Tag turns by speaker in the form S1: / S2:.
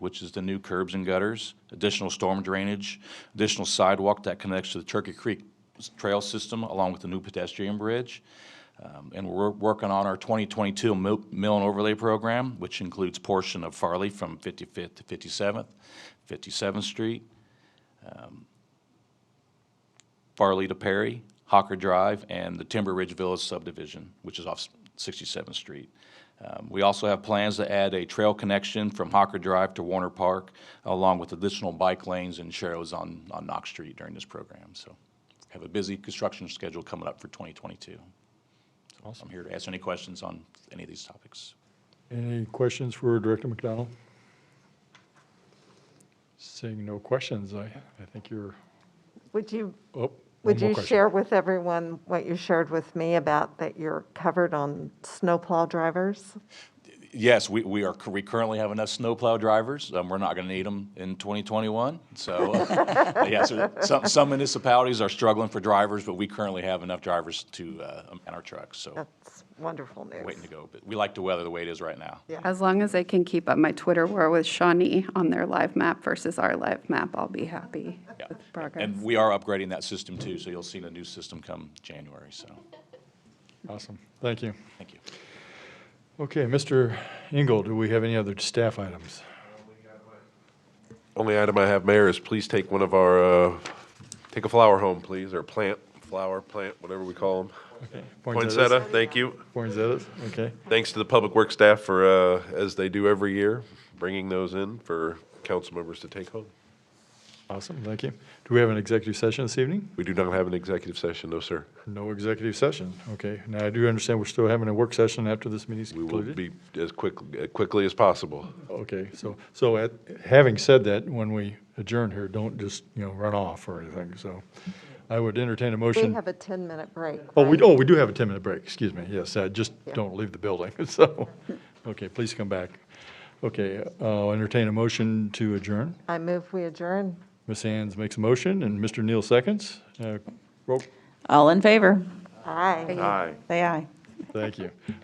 S1: which is the new curbs and gutters, additional storm drainage, additional sidewalk that connects to the Turkey Creek Trail System along with the new pedestrian bridge. Um, And we're working on our 2022 mil- mill and overlay program, which includes portion of Farley from 55th to 57th, 57th Street, um, Farley to Perry, Hawker Drive, and the Timber Ridge Village subdivision, which is off 67th Street. Um, We also have plans to add a trail connection from Hawker Drive to Warner Park, along with additional bike lanes and sharrows on, on Knox Street during this program. So have a busy construction schedule coming up for 2022. So I'm here to answer any questions on any of these topics.
S2: Any questions for Director McDonald? Seeing no questions, I, I think you're,
S3: Would you,
S2: oh. one
S3: would
S2: more
S3: you
S2: question.
S3: share with everyone what you shared with me about that you're covered on snowplow drivers?
S1: Yes, we, we are, we currently have enough snowplow drivers. Um, we're not going to need them in 2021. So, uh, yes, there- some, some municipalities are struggling for drivers, but we currently have enough drivers to, uh, man our trucks. So
S3: That's wonderful news.
S1: waiting to go. But we like the weather the way it is right now.
S3: Yeah.
S4: As long as they can keep up my Twitter war with Shawnee on their live map versus our live map, I'll be happy
S1: Yeah.
S4: with progress.
S1: And we are upgrading that system too. So you'll see the new system come January. So,
S2: Awesome, thank you.
S1: thank you.
S2: Okay, Mr. Engel, do we have any other staff items?
S5: Only item I have, Mayor, is please take one of our, uh, take a flower home, please, or plant, flower, plant, whatever we call them. Poinsettia, thank you.
S2: Poinsettias, okay.
S5: Thanks to the Public Works staff for, uh, as they do every year, bringing those in for council members to take home.
S2: Awesome, thank you. Do we have an executive session this evening?
S5: We do not have an executive session, no, sir.
S2: No executive session, okay. Now, I do understand we're still having a work session after this meeting's
S5: We will
S2: concluded.
S5: be as quick, uh, quickly as possible.
S2: Okay, so, so at- having said that, when we adjourn here, don't just, you know, run off or anything, so I would entertain a motion.
S3: We have a 10-minute break.
S2: Oh, we,
S3: right?
S2: oh, we do have a 10-minute break, excuse me, yes, uh, just
S3: Yeah.
S2: don't leave the building, so, okay, please come back. Okay, I'll entertain a motion to adjourn.
S3: I move we adjourn.
S2: Ms. Hands makes a motion, and Mr. Neal seconds. Uh, roll-
S6: All in favor?
S3: Aye.
S5: Aye.
S6: Say aye.
S2: Thank you.